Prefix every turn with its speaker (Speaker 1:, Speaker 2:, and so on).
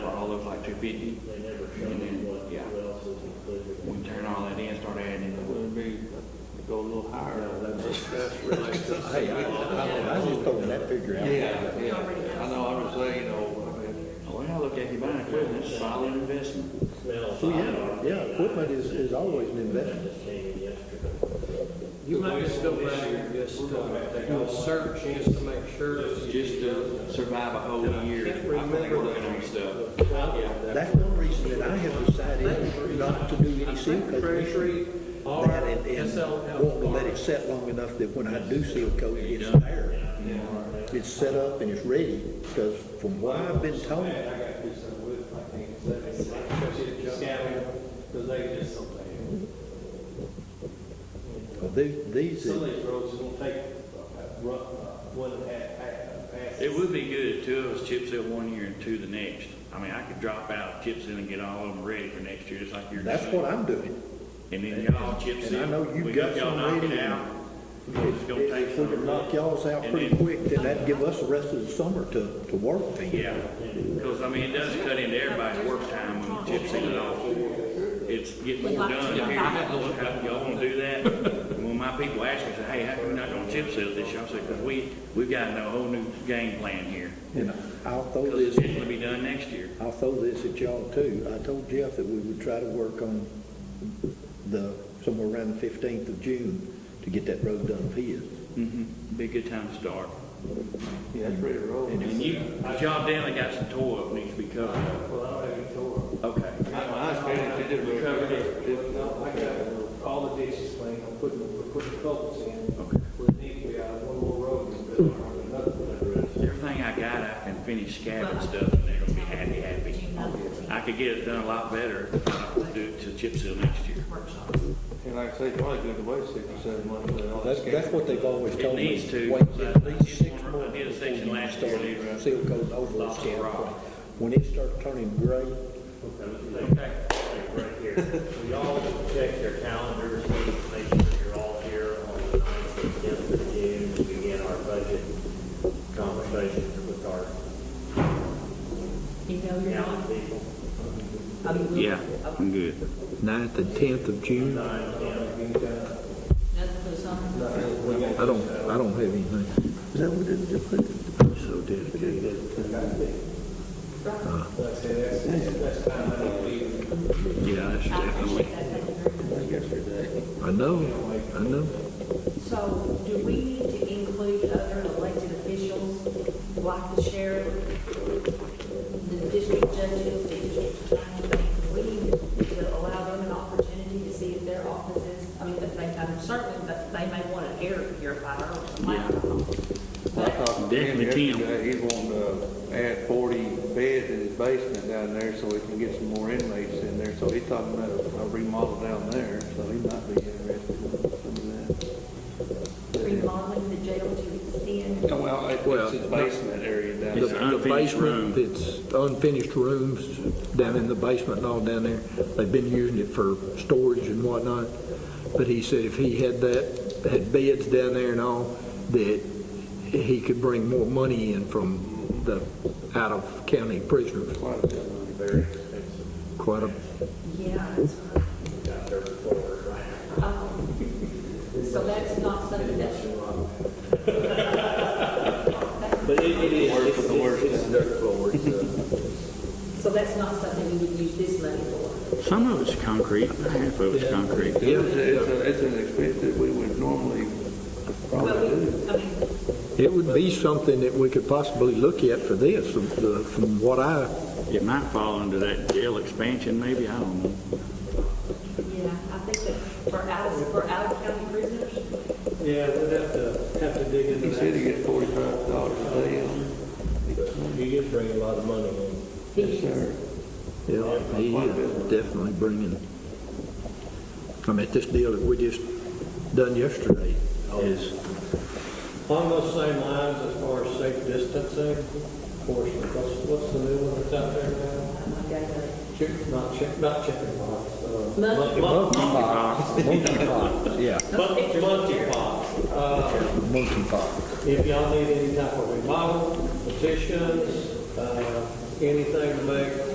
Speaker 1: like two fifty.
Speaker 2: They never show me what,
Speaker 1: Yeah.
Speaker 2: what else is included.
Speaker 1: We turn all that in, start adding, it would be, go a little higher.
Speaker 3: Hey, I, I I was just throwing that figure out.
Speaker 4: Yeah, yeah, I know, I was saying, you know, I mean,
Speaker 1: Well, I Oh, look at you buying equipment, it's a solid investment.
Speaker 2: Smell.
Speaker 3: So, yeah, yeah, equipment is, is always an investment.
Speaker 2: Just came in yesterday.
Speaker 5: You might just go back and just, uh, do a search just to make sure. that you-
Speaker 1: Just to survive a whole year, I think we're looking on stuff.
Speaker 3: That's one reason that I have decided not to do any seal coat
Speaker 5: Treasury, or
Speaker 3: That and, and
Speaker 5: SLL.
Speaker 3: want to let it set long enough that when I do seal coat, it's there. It's set up and it's ready, because from what I've been told,
Speaker 6: Because they just don't pay.
Speaker 3: these, these,
Speaker 6: Some of
Speaker 3: is-
Speaker 6: these roads don't take, uh, rough, uh, one half, half, half.
Speaker 1: It would be good if two of us chip seal one year and two the next. I mean, I could drop out, chip seal and get all of them ready for next year, just like you're doing.
Speaker 3: that's what I'm doing.
Speaker 1: And then y'all chip
Speaker 3: And
Speaker 1: seal.
Speaker 3: I know
Speaker 1: We
Speaker 3: you've got
Speaker 1: y'all
Speaker 3: some
Speaker 1: knock
Speaker 3: ready.
Speaker 1: it out. It's gonna
Speaker 3: If-
Speaker 1: take
Speaker 3: If we
Speaker 1: some.
Speaker 3: could knock y'all's out pretty quick, then that'd give us the rest of the summer to, to work.
Speaker 1: Yeah, because I mean, it does cut into everybody's work time when you chip seal it all four. It's getting more done. Here, Y'all wanna do that? And When my people ask me, say, hey, how come you're not gonna chip seal this year? I say, because we, we've got a whole new game plan here.
Speaker 3: And I'll throw
Speaker 1: Because
Speaker 3: this,
Speaker 1: it's gonna be done next year.
Speaker 3: I'll throw this at y'all too. I told Jeff that we would try to work on the, somewhere around the fifteenth of June to get that road done for you.
Speaker 1: Mm-hmm. Be a good time to start.
Speaker 3: Yeah, that's ready to roll.
Speaker 1: And you, but y'all definitely got some toil that needs to be covered.
Speaker 6: Well, I don't have any tour.
Speaker 1: Okay.
Speaker 4: my experience, they did a
Speaker 1: We covered it.
Speaker 6: No, I got all the ditches clean, I'm putting, we're putting culverts in. Okay. With need, we got one more road, and build another one address.
Speaker 1: Everything I got, I can finish scabbing stuff and they're gonna be happy, happy. I could get it done a lot better if I would do it to chip seal next year.
Speaker 4: and like I say, probably good to wait six or seven months. but all that
Speaker 3: That's, that's what they've always
Speaker 1: It
Speaker 3: told me.
Speaker 1: needs to.
Speaker 3: Wait at least
Speaker 1: I
Speaker 3: six months
Speaker 1: did a
Speaker 3: before
Speaker 1: section
Speaker 3: you
Speaker 1: last year,
Speaker 3: start seal coating over the
Speaker 1: Lots of
Speaker 3: scale.
Speaker 1: rock.
Speaker 3: When it starts turning gray,
Speaker 2: Right here. So y'all check your calendars, make sure you're all here on the ninth and tenth of June to begin our budget conversations with our
Speaker 7: You know, you're not,
Speaker 2: county people.
Speaker 7: I mean, we-
Speaker 1: Yeah, I'm good.
Speaker 3: ninth and tenth of June, I
Speaker 7: that's the summer.
Speaker 3: don't, I don't have anything. Is that what it, they put? I'm so dedicated. Oh,
Speaker 1: Yeah, that's
Speaker 7: I
Speaker 1: definitely.
Speaker 7: appreciate that, thank you very much.
Speaker 3: I know, I know.
Speaker 7: So do we need to include other elected officials, like the sheriff, the district judges, the district attorney? We need to allow them an opportunity to see if their offices, I mean, that they, I'm certain that they may want to air purify their own. I don't know.
Speaker 4: I talked to him
Speaker 1: Definitely ten.
Speaker 4: yesterday, he's wanting to add forty beds in his basement down there so he can get some more inmates in there, so he's talking about a remodel down there, so he might be interested in some of that.
Speaker 7: Remodeling the jail to extend.
Speaker 4: Yeah, Well, it's his basement area down
Speaker 1: It's
Speaker 4: there.
Speaker 1: an unfinished room.
Speaker 3: It's unfinished rooms down in the basement and all down there. They've been using it for storage and whatnot. But he said if he had that, had beds down there and all, that he could bring more money in from the out-of-county prisoners. Quite a,
Speaker 7: Yeah. it's- Um, So that's not something that should.
Speaker 2: But it it is, it's, it's it's dirt floor, it's, uh,
Speaker 7: So that's not something you would use this money for?
Speaker 1: Some of it's concrete, half of it's concrete.
Speaker 4: It was- It's, a- it's an expense that we would normally
Speaker 7: But
Speaker 4: probably do.
Speaker 7: we, I mean,
Speaker 3: it would be something that we could possibly look at for this, from the- from what I,
Speaker 1: It might fall under that jail expansion, maybe, I don't know.
Speaker 7: yeah, I think that for out, for out of county prisoners,
Speaker 5: Yeah, we'd have to, have to dig into
Speaker 4: He
Speaker 5: that.
Speaker 4: said he gets forty-five dollars a day on,
Speaker 2: you just bring a lot of money in.
Speaker 7: he
Speaker 4: yes, sir.
Speaker 3: yeah, he is definitely bringing. I mean, this deal that we just done yesterday is,
Speaker 5: Along those same lines, as far as safe distancing, of course, what's, what's the new one that's out there now? Chick, not chick, not chicken pox, uh.
Speaker 7: Monkey-
Speaker 3: yeah,
Speaker 5: Monkey, monkey pox. Uh,
Speaker 3: monkey pox.
Speaker 5: if y'all need any type of remodel, petitions, uh, anything to make